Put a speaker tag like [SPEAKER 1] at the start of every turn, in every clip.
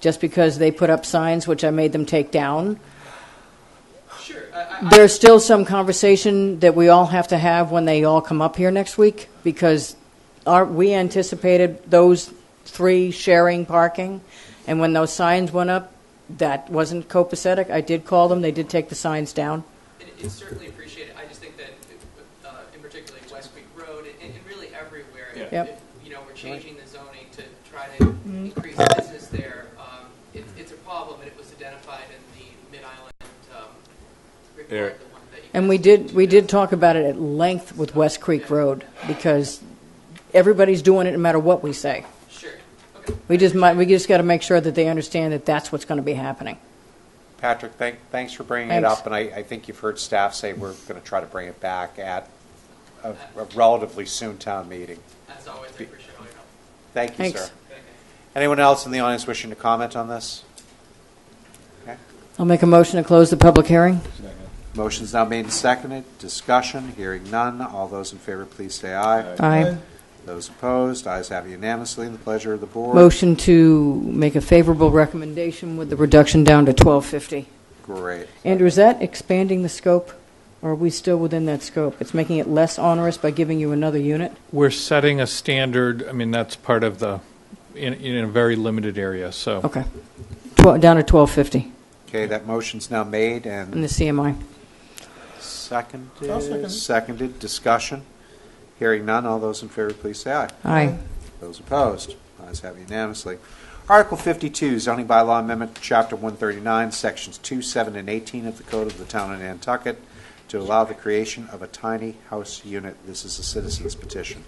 [SPEAKER 1] just because they put up signs, which I made them take down.
[SPEAKER 2] Sure. I- I-
[SPEAKER 1] There's still some conversation that we all have to have when they all come up here next week because our, we anticipated those three sharing parking. And when those signs went up, that wasn't copacetic. I did call them. They did take the signs down.
[SPEAKER 2] it- It's certainly appreciated. I just think that, uh, in particular, West Creek Road, and and really everywhere, if-
[SPEAKER 1] Yeah. Mm-hmm. Yep.
[SPEAKER 2] if, you know, we're changing the zoning to try to increase business there, um, it- it's a problem, and it was identified in the Mid-Island um, report,
[SPEAKER 3] Eric.
[SPEAKER 2] the one that you.
[SPEAKER 1] And
[SPEAKER 2] guys
[SPEAKER 1] we did,
[SPEAKER 2] mentioned.
[SPEAKER 1] we did talk about it at length with West Creek Road because everybody's doing it no matter what we say.
[SPEAKER 2] Sure. Okay.
[SPEAKER 1] We just might, we just got to make sure that they understand that that's what's going to be happening.
[SPEAKER 4] Patrick, thank, thanks for bringing it
[SPEAKER 1] Thanks.
[SPEAKER 4] up, and I, I think you've heard staff say we're going to try to bring it back at a a relatively soon town meeting.
[SPEAKER 2] As always, I appreciate all your help.
[SPEAKER 4] Thank you,
[SPEAKER 1] Thanks.
[SPEAKER 4] sir.
[SPEAKER 2] Thank you.
[SPEAKER 4] Anyone else in the audience wishing to comment on this? Okay.
[SPEAKER 1] I'll make a motion to close the public hearing.
[SPEAKER 4] Motion's now made and seconded. Discussion, hearing none. All those in favor, please say aye.
[SPEAKER 1] Aye.
[SPEAKER 4] Those opposed, ayes have unanimously. The pleasure of the board.
[SPEAKER 1] Motion to make a favorable recommendation with the reduction down to 1250.
[SPEAKER 4] Great.
[SPEAKER 1] Andrew, is that expanding the scope, or are we still within that scope? It's making it less onerous by giving you another unit?
[SPEAKER 3] We're setting a standard, I mean, that's part of the, in, in a very limited area, so.
[SPEAKER 1] Okay. Twelve Down to 1250
[SPEAKER 4] Okay, that motion's now made
[SPEAKER 1] in the
[SPEAKER 4] and
[SPEAKER 1] CMI.
[SPEAKER 5] I'll second
[SPEAKER 4] seconded.
[SPEAKER 5] it.
[SPEAKER 4] Seconded. Discussion, hearing none. All those in favor, please say aye.
[SPEAKER 1] Aye.
[SPEAKER 4] Those opposed, ayes have unanimously. Article 52, zoning bylaw amendment, Chapter 139, Sections 2, 7, and 18 of the Code of the Town of Nantucket to allow the creation of a tiny house unit. This is a citizen's petition.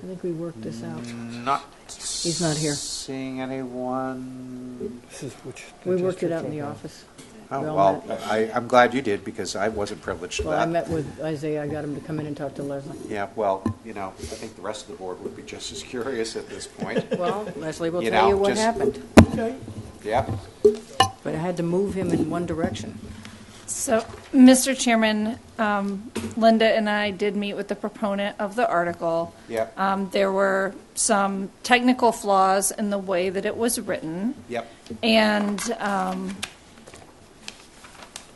[SPEAKER 1] I think we worked this out.
[SPEAKER 4] Not.
[SPEAKER 1] He's not here.
[SPEAKER 4] Seeing anyone.
[SPEAKER 5] This is Mm-hmm. which.
[SPEAKER 1] We worked it out in the office.
[SPEAKER 4] Oh,
[SPEAKER 1] We all
[SPEAKER 4] well, I, I'm glad you did because I wasn't privileged to
[SPEAKER 1] Well, I
[SPEAKER 4] that.
[SPEAKER 1] met with Isaiah, I got him to come in and talk to Leslie.
[SPEAKER 4] Yeah, well, you know, I think the rest of the board would be just as curious at this point.
[SPEAKER 1] Well, Leslie will
[SPEAKER 4] You
[SPEAKER 1] tell you
[SPEAKER 4] know,
[SPEAKER 1] what
[SPEAKER 4] just-
[SPEAKER 1] happened,
[SPEAKER 5] Okay.
[SPEAKER 4] Yep.
[SPEAKER 1] but I had to move him in one direction.
[SPEAKER 6] So, Mr. Chairman, um, Linda and I did meet with the proponent of the article.
[SPEAKER 4] Yep.
[SPEAKER 6] Um, There were some technical flaws in the way that it was written.
[SPEAKER 4] Yep.
[SPEAKER 6] And um,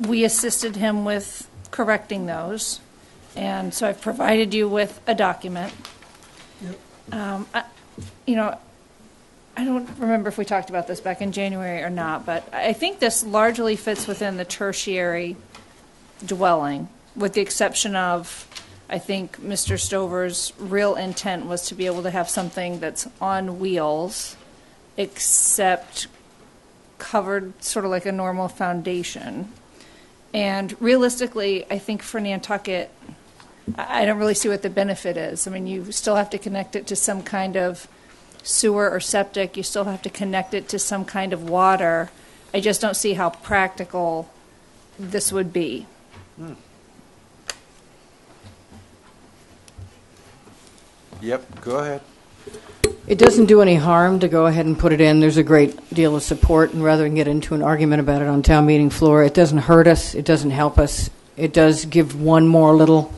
[SPEAKER 6] we assisted him with correcting those. And so I've provided you with a document. Um, I- You know, I don't remember if we talked about this back in January or not, but I I think this largely fits within the tertiary dwelling, with the exception of, I think, Mr. Stover's real intent was to be able to have something that's on wheels, except covered sort of like a normal foundation. And realistically, I think for Nantucket, I I don't really see what the benefit is. I mean, you still have to connect it to some kind of sewer or septic, you still have to connect it to some kind of water. I just don't see how practical this would be.
[SPEAKER 4] Yep, go ahead.
[SPEAKER 1] It doesn't do any harm to go ahead and put it in. There's a great deal of support, and rather than get into an argument about it on town meeting floor, it doesn't hurt us, it doesn't help us. It does give one more little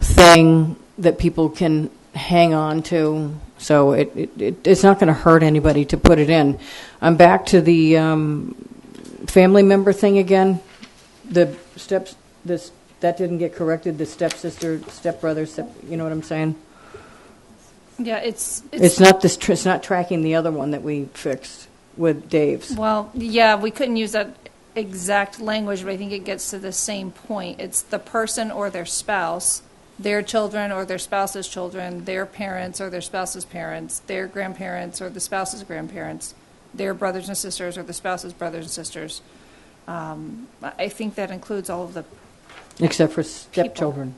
[SPEAKER 1] thing that people can hang on to, so it, it- it, it's not going to hurt anybody to put it in. I'm back to the um, family member thing again. The steps, this, that didn't get corrected, the stepsister, stepbrother, step, you know what I'm saying?
[SPEAKER 6] Yeah, it's,
[SPEAKER 1] It's
[SPEAKER 6] it's,
[SPEAKER 1] not this, tr- it's not tracking the other one that we fixed with Dave's.
[SPEAKER 6] well, yeah, we couldn't use that exact language, but I think it gets to the same point. It's the person or their spouse, their children or their spouse's children, their parents or their spouse's parents, their grandparents or the spouse's grandparents, their brothers and sisters or the spouse's brothers and sisters. Um, I I think that includes all of the
[SPEAKER 1] Except for stepchildren.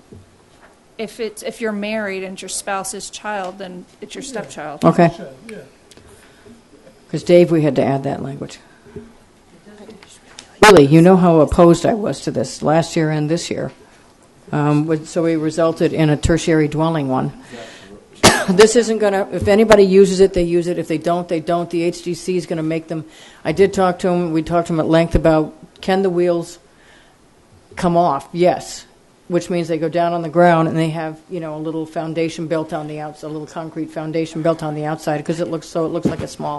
[SPEAKER 6] if it's if you're married and your spouse's child, then it's your stepchild.
[SPEAKER 1] Okay,
[SPEAKER 5] Yeah.
[SPEAKER 1] because Dave, we had to add that language. Really, you know how opposed I was to this last year and this year. Um, with- So we resulted in a tertiary dwelling one. This isn't going to, if anybody uses it, they use it. If they don't, they don't. The HDC is going to make them. I did talk to him, we talked to him at length about, can the wheels come off, yes, which means they go down on the ground and they have, you know, a little foundation built on the outside, a little concrete foundation built on the outside because it looks so, it looks like a small